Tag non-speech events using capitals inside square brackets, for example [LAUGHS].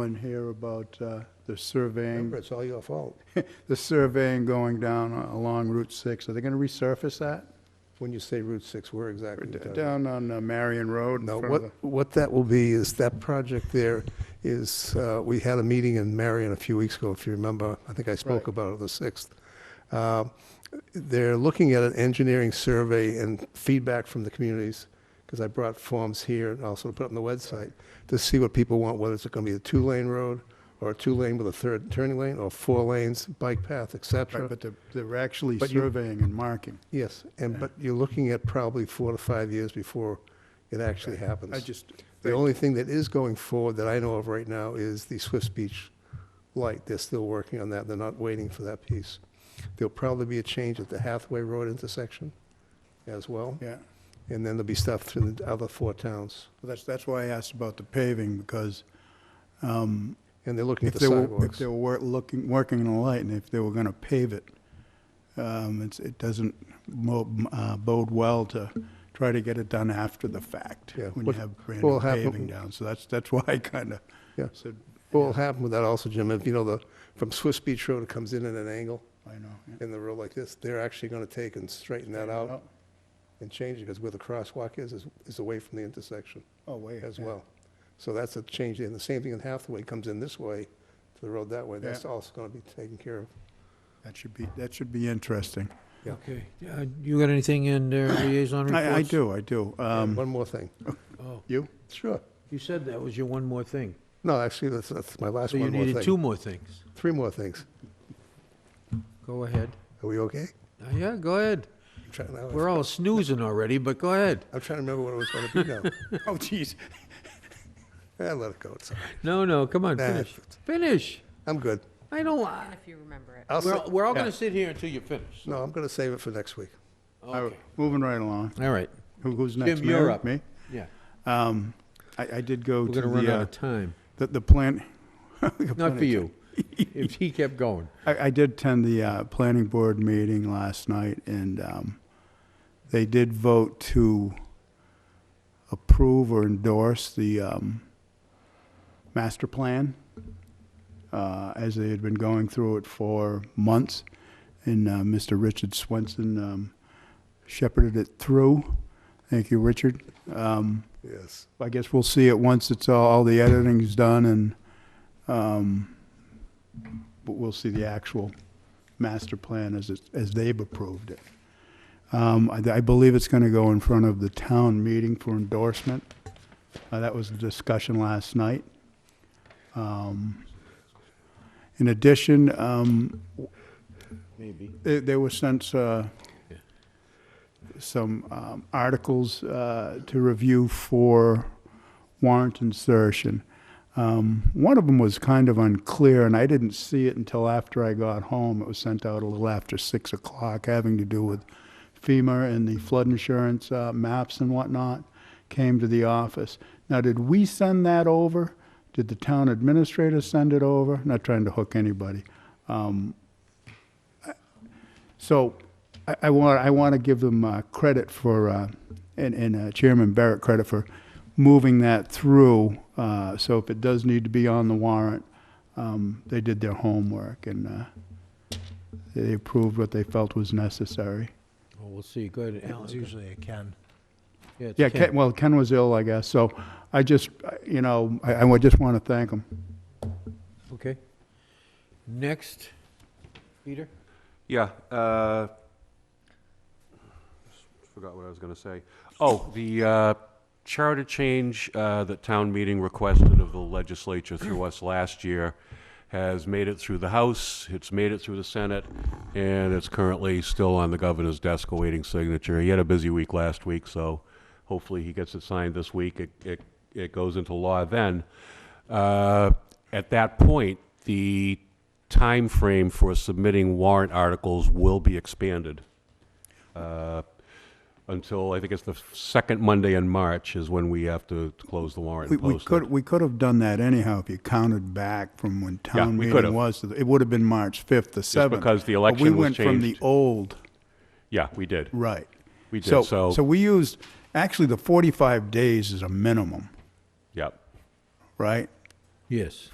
one here about uh, the surveying, Remember, it's all your fault. the surveying going down along Route 6. Are they going to resurface that? When you say Route 6, where exactly? you talking? Down on uh, Marion Road? in No, front of what, what that will be is that project there is, uh, we had a meeting in Marion a few weeks ago, if you remember. I think I spoke Right. about it the 6th. Uh, They're looking at an engineering survey and feedback from the communities, because I brought forms here and also put it on the website, to see what people want, whether it's going to be a two-lane road, or a two-lane with a third turning lane, or four lanes, bike path, et the- Right, cetera. But they're- they're actually But you- surveying and marking. Yes, and, Yeah. but you're looking at probably four to five years before it actually happens. I just, The only thing that is going forward that I know of right now is the Swiss Beach light. They're still working on that. They're not waiting for that piece. There'll probably be a change at the Hathaway Road intersection as well. yeah, And then there'll be stuff through the other four towns. Well, that's, that's why I asked about the paving, because um, And they're looking at if the they were, if sidewalks. they were wor- looking, working on the light, and if they were going to pave it, um, it's- it doesn't mo- uh, bode well to try to get it done after the fact, Yeah, when you what- have brand what'll new happen- paving down. So that's, that's [LAUGHS] why I kind of Yeah. said, What will happen with that also, Jim, if you know, the, from Swiss Beach Road, it comes in at an angle I know. yeah. Oh, in the road like this. They're actually going to take and straighten that out and change it because where the crosswalk is, is, is away from the intersection. Oh, wait. as yeah. well. So that's a change, there. and the same thing in Hathaway comes in this way to the road that way. That's also going to be taken care of. That should be, that should be interesting. Yeah. Okay, Uh, you got anything [CLEARS THROAT] in there, liaison reports? I, I do, I do. And Um, One more thing. Oh, You? Sure. You said that was your one more thing. No, actually, that's, that's my last So you one more needed two thing. more things. Three more things. Go ahead. Are we okay? Uh, Yeah, go ahead. I'm trying, now We're I'm- all snoozing already, but go ahead. I'm trying to remember what it was going to be now. [LAUGHS] [LAUGHS] Oh, geez. Eh, let it go. It's all right. No, no, come on, Nah, finish. Finish. I'm good. I don't, And if you remember it. I'll, we're, sa- we're all yeah. gonna sit here until you finish. no, I'm going to save it for next week. Okay, Moving right along. all right, Who- Who's next? Jim, you're Mary? up. Me? yeah. Um, I, I did go We're to gonna run the, out uh, of time. the, [LAUGHS] the plan. Not for you, [LAUGHS] if he kept going. I, I did attend the, uh, planning board meeting last night and, um, they did vote to approve or endorse the, um, master plan, uh, as they had been going through it for months. And, uh, Mr. Richard Swenson, um, shepherded it through. Thank you, Richard. Um, Yes. I guess we'll see it once it's all, all the editing's done and, um, but we'll see the actual master plan as it, as they've approved it. Um, I, I believe it's gonna go in front of the town meeting for endorsement. Uh, that was the discussion last night. Um, in addition, um, Maybe. there, there were sent, uh, some, um, articles, uh, to review for warrant insertion. Um, one of them was kind of unclear, and I didn't see it until after I got home. It was sent out a little after six o'clock, having to do with FEMA and the flood insurance, uh, maps and whatnot, came to the office. Now, did we send that over? Did the town administrator send it over? Not trying to hook anybody. So I, I want, I want to give them uh, credit for, uh, and, and uh, Chairman Barrett credit for moving that through. Uh, So if it does need to be on the warrant, um, they did their homework and uh, they approved what they felt was necessary. Well, we'll see, go ahead, Alan. It's usually a Ken. Yeah, it's Yeah, Ken. Ken, well, Ken was ill, I guess, so I just, uh, you know, I, I would just want to thank him. Okay. Next, Peter? Yeah, uh, forgot what I was gonna say. Oh, the, uh, charter change, uh, that town meeting requested of the legislature through us last year has made it through the House, it's made it through the Senate, and it's currently still on the governor's desk awaiting signature. He had a busy week last week, so hopefully he gets it signed this week. It, it, it goes into law then. Uh, At that point, the time frame for submitting warrant articles will be expanded. Uh, Until, I think it's the second Monday in March is when we have to close the warrant We, and we post could, it. we could have done that anyhow if you counted back from when Yeah, town we could meeting have. was. to the- It would have been March 5th, the 7th. because the But election was We went from the changed. old, Yeah, we did. right. We did, so, So we used, actually, the 45 days is a minimum, yeah. right? Yes.